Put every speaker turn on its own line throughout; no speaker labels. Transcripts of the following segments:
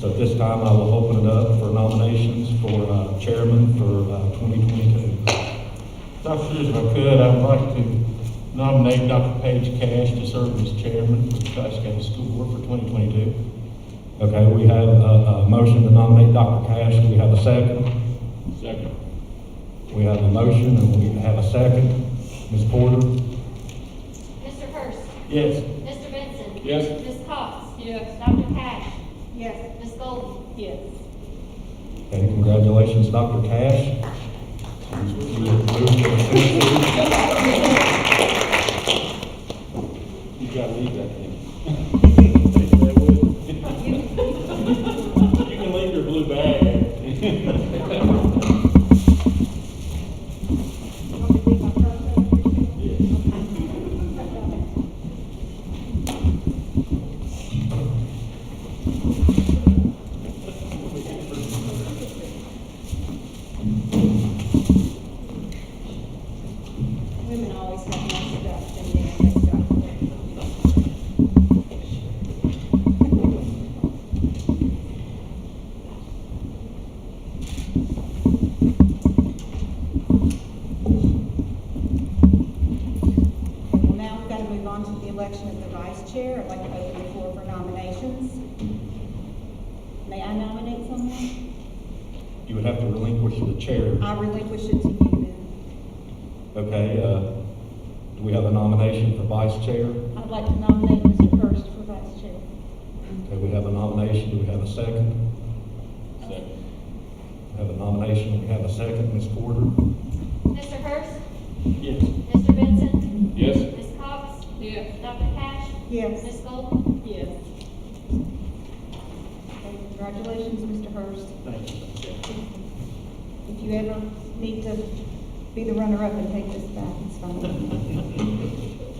So at this time, I will open it up for nominations for uh, chairman for uh, 2022.
Dr. If I could, I'd like to nominate Dr. Paige Cash to serve as chairman for the Class County School Board for 2022.
Okay, we have a, a motion to nominate Dr. Cash. We have a second.
Second.
We have a motion and we have a second. Ms. Porter?
Mr. Hurst.
Yes.
Mr. Benson.
Yes.
Ms. Cox. Yes. Dr. Cash.
Yes.
Ms. Golden.
Yes.
Okay, congratulations, Dr. Cash. You have moved to the C.
You gotta leave that thing. You can leave your blue bag.
Women always have more stuff than men have stuff. Okay, well now we've got to move on to the election of the vice chair. I'd like to open the floor for nominations. May I nominate someone?
You would have to relinquish the chair.
I relinquish it to you then.
Okay, uh, do we have a nomination for vice chair?
I'd like to nominate Mr. Hurst for vice chair.
Okay, we have a nomination, do we have a second?
Second.
We have a nomination, we have a second, Ms. Porter?
Mr. Hurst.
Yes.
Mr. Benson.
Yes.
Ms. Cox. Yes. Dr. Cash.
Yes.
Ms. Golden.
Yes. Okay, Congratulations, Mr. Hurst.
Thank you.
If you ever need to be the runner-up and take this back, it's fine.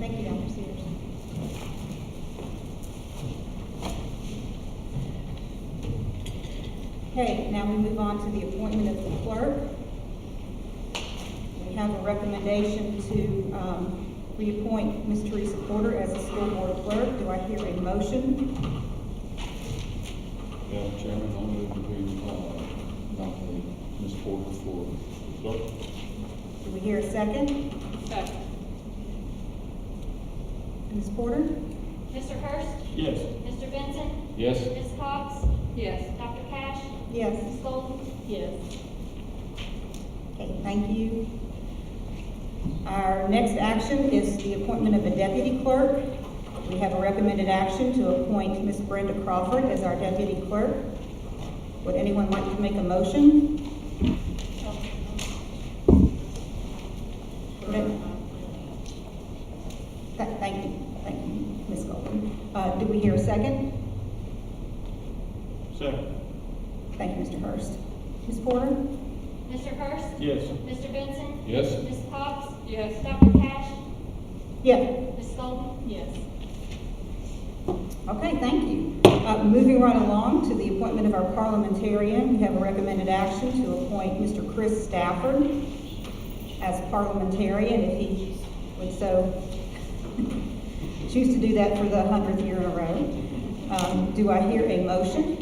Thank you, Dr. Sears. Okay, now we move on to the appointment of the clerk. We have a recommendation to um, reappoint Ms. Teresa Porter as a school board clerk. Do I hear a motion?
Madam Chairman, I'll move that we uh, nominate Ms. Porter for clerk.
Do we hear a second?
Second.
Ms. Porter?
Mr. Hurst.
Yes.
Mr. Benson.
Yes.
Ms. Cox. Yes. Dr. Cash.
Yes.
Ms. Golden.
Yes. Okay, thank you. Our next action is the appointment of a deputy clerk. We have a recommended action to appoint Ms. Brenda Crawford as our deputy clerk. Would anyone like to make a motion? Th- Thank you, thank you, Ms. Golden. Uh, Do we hear a second?
Second.
Thank you, Mr. Hurst. Ms. Porter?
Mr. Hurst.
Yes.
Mr. Benson.
Yes.
Ms. Cox. Yes. Dr. Cash.
Yes.
Ms. Golden.
Yes. Okay, thank you. Uh, Moving right along to the appointment of our parliamentarian, we have a recommended action to appoint Mr. Chris Stafford as parliamentarian if he would so choose to do that for the hundredth year in a row. Um, Do I hear a motion?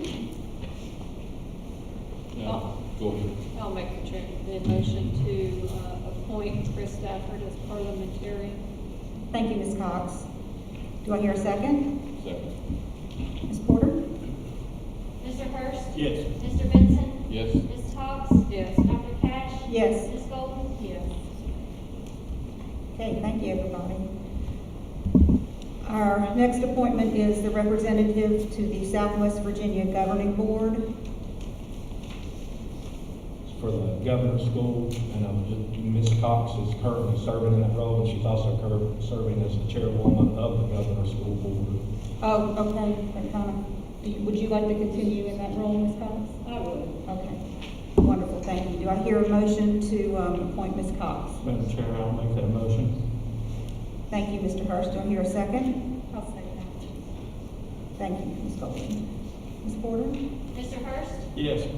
Now, go ahead.
I'll make the cha- the motion to uh, appoint Chris Stafford as parliamentarian.
Thank you, Ms. Cox. Do I hear a second?
Second.
Ms. Porter?
Mr. Hurst.
Yes.
Mr. Benson.
Yes.
Ms. Cox.
Yes.
Dr. Cash.
Yes.
Ms. Golden.
Yes.
Okay, thank you, everybody. Our next appointment is the representative to the Southwest Virginia Governing Board.
for the governor's school, and um, Ms. Cox is currently serving in that role, and she's also cur- serving as the chairwoman of the governor's school board.
Oh, okay, that kind of- do you- would you like to continue in that role, Ms. Cox?
I would.
Okay, wonderful, thank you. Do I hear a motion to um, appoint Ms. Cox?
Madam Chair, I'll make that motion.
Thank you, Mr. Hurst. Do I hear a second?
I'll second
Thank you, Ms. Golden. Ms. Porter?
Mr. Hurst.
Yes.